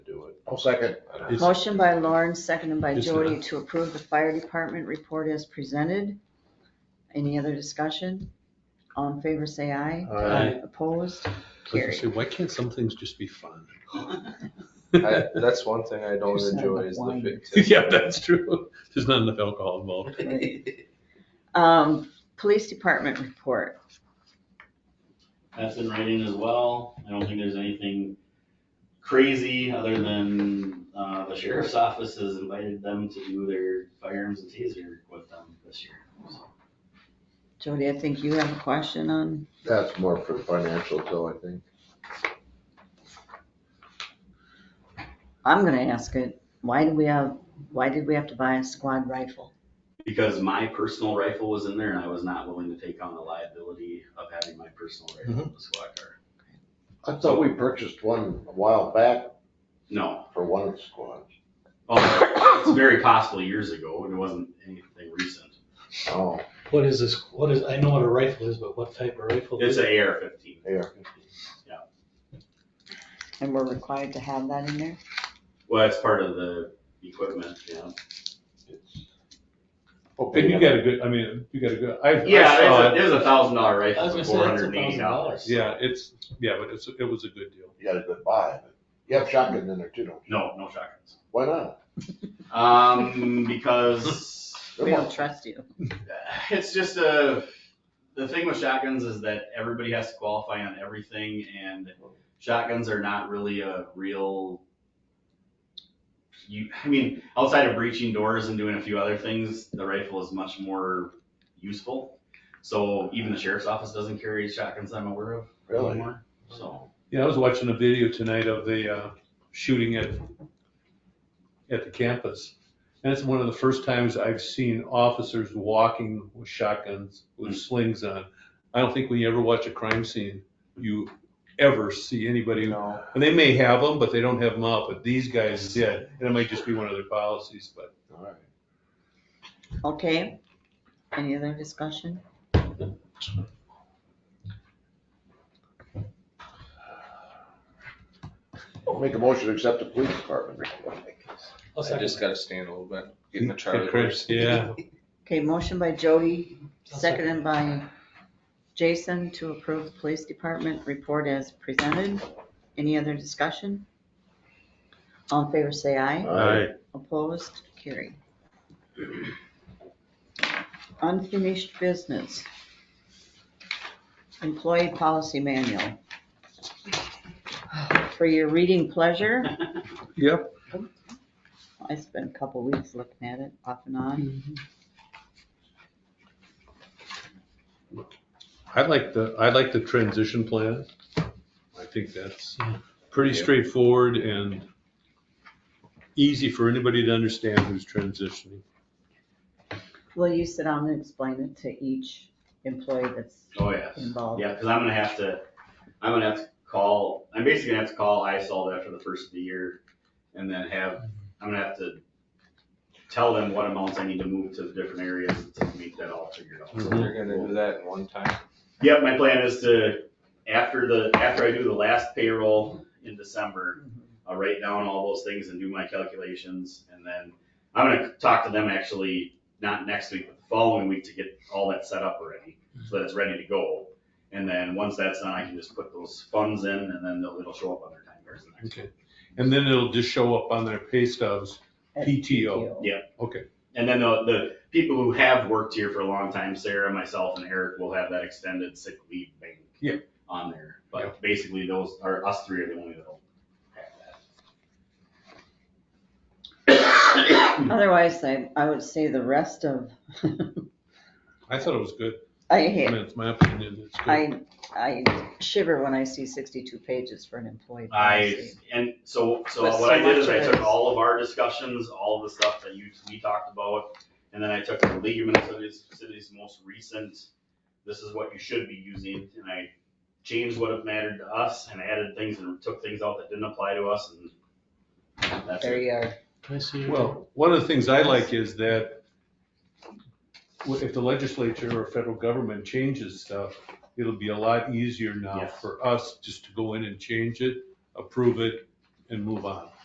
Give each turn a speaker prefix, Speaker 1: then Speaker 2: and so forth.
Speaker 1: I'll second.
Speaker 2: Is-
Speaker 3: Motion by Lauren, seconded by
Speaker 2: Is
Speaker 3: Jody
Speaker 2: there-
Speaker 3: to approve the fire department report as presented. Any other discussion? All in favor, say aye.
Speaker 2: Aye.
Speaker 3: Opposed?
Speaker 2: I was gonna say,
Speaker 3: Carried.
Speaker 2: why can't some things just be fun?
Speaker 4: I, that's one thing I don't
Speaker 3: There's not
Speaker 4: enjoy
Speaker 3: enough
Speaker 4: is the
Speaker 3: wine.
Speaker 4: fictitious.
Speaker 2: Yeah, that's true. There's not enough alcohol involved.
Speaker 3: Um, Police department report.
Speaker 5: That's in writing as well. I don't think there's anything crazy other than, uh, the sheriff's office has invited them to do their firearms and taser with them this year. So,
Speaker 3: Jody, I think you have a question on,
Speaker 1: That's more for financial though, I think.
Speaker 3: I'm gonna ask it. Why do we have, why did we have to buy a squad rifle?
Speaker 5: Because my personal rifle was in there and I was not willing to take on the liability of having my personal rifle in the squad car.
Speaker 1: I thought we purchased one a while back
Speaker 5: No,
Speaker 1: for one of the squads.
Speaker 5: oh, it's very possible years ago and it wasn't anything recent.
Speaker 1: Oh,
Speaker 6: What is this, what is, I know what a rifle is, but what type of rifle?
Speaker 5: It's
Speaker 6: is it?
Speaker 5: a AR fifteen.
Speaker 1: yeah.
Speaker 3: And we're required to have that in there?
Speaker 5: Well, it's part of the equipment, yeah.
Speaker 2: And you got a good, I mean, you got a good, I, I saw
Speaker 5: Yeah,
Speaker 2: it.
Speaker 5: it was a thousand dollar
Speaker 6: I was
Speaker 5: rifle for
Speaker 6: gonna
Speaker 5: four
Speaker 6: say,
Speaker 5: hundred
Speaker 6: that's
Speaker 5: and
Speaker 6: a
Speaker 5: eighty
Speaker 6: thousand
Speaker 5: dollars.
Speaker 6: dollars.
Speaker 2: Yeah, it's, yeah, but it's, it was a good deal.
Speaker 1: You got a good buy. but You have shotguns in there too, don't you?
Speaker 5: No, no shotguns.
Speaker 1: Why not?
Speaker 5: Um, because
Speaker 1: They're
Speaker 3: We
Speaker 1: more-
Speaker 3: don't trust you.
Speaker 5: it's just a, the thing with shotguns is that everybody has to qualify on everything and shotguns are not really a real. You, I mean, outside of breaching doors and doing a few other things, the rifle is much more useful. So even the sheriff's office doesn't carry shotguns I'm aware of
Speaker 1: Really?
Speaker 5: anymore, so.
Speaker 2: Yeah, I was watching a video tonight of the uh, shooting at, at the campus. And it's one of the first times I've seen officers walking with shotguns, with
Speaker 5: Mm.
Speaker 2: slings on. I don't think when you ever watch a crime scene, you ever see anybody,
Speaker 4: No.
Speaker 2: and they may have them, but they don't have them out, but these guys did. And it might just be one of their policies, but
Speaker 1: All right.
Speaker 3: Okay? Any other discussion?
Speaker 1: I'll Make a motion to accept the police department report.
Speaker 6: I'll
Speaker 4: I
Speaker 6: second
Speaker 4: just
Speaker 6: that.
Speaker 4: gotta stand a little bit, getting the
Speaker 2: Hey,
Speaker 4: Charlie
Speaker 2: Chris,
Speaker 4: horse.
Speaker 2: yeah,
Speaker 3: Okay, motion by Jody,
Speaker 6: I'll second.
Speaker 3: seconded by Jason to approve the police department report as presented. Any other discussion? All in favor, say aye.
Speaker 1: Aye.
Speaker 3: Opposed, carried. Unfinished business. Employee policy manual. For your reading pleasure,
Speaker 2: yep.
Speaker 3: I spent a couple weeks looking at it off and on.
Speaker 2: I like the, I like the transition plan. I think that's pretty
Speaker 4: Yeah.
Speaker 2: straightforward and easy for anybody to understand who's transitioning.
Speaker 3: Will you sit down and explain it to each employee that's
Speaker 5: Oh, yes.
Speaker 3: involved?
Speaker 5: Yeah, because I'm gonna have to, I'm gonna have to call, I'm basically gonna have to call ISOL after the first of the year and then have, I'm gonna have to tell them what amounts I need to move to the different areas to make that all figured out.
Speaker 4: So They're gonna do that in one time.
Speaker 5: Yep, my plan is to, after the, after I do the last payroll in December, I'll write down all those things and do my calculations, and then I'm gonna talk to them actually, not next week, but the following week to get all that set up already, so that it's ready to go. And then, once that's done, I can just put those funds in, and then they'll, it'll show up on their time cards the next.
Speaker 2: Okay, and then it'll just show up on their pay stubs,
Speaker 3: At
Speaker 2: PTO. okay.
Speaker 5: And then the, the people who have worked here for a long time, Sarah, myself, and Eric, will have that extended sick leave bank.
Speaker 2: Yeah.
Speaker 5: On there,
Speaker 2: Yeah.
Speaker 5: but basically those, are us three are the only that'll have that.
Speaker 3: Otherwise, I, I would say the rest of,
Speaker 2: I thought it was good,
Speaker 3: I
Speaker 2: I
Speaker 3: hate,
Speaker 2: mean, it's my opinion, it's good.
Speaker 3: I, I shiver when I see sixty-two pages for an employee
Speaker 5: I,
Speaker 3: policy.
Speaker 5: and so, so
Speaker 3: But
Speaker 5: what I
Speaker 3: so
Speaker 5: did
Speaker 3: much
Speaker 5: is I
Speaker 3: of it
Speaker 5: took
Speaker 3: is-
Speaker 5: all of our discussions, all of the stuff that you, we talked about, and then I took the League of Minnesota Cities most recent, this is what you should be using, and I changed what mattered to us and added things and took things out that didn't apply to us and that's
Speaker 3: There
Speaker 5: it.
Speaker 3: you are.
Speaker 6: Can I see your-
Speaker 2: Well, one of the things I like is that if the legislature or federal government changes stuff, it'll be a lot easier now
Speaker 5: Yes.
Speaker 2: for us just to go in and change it, approve it, and move on.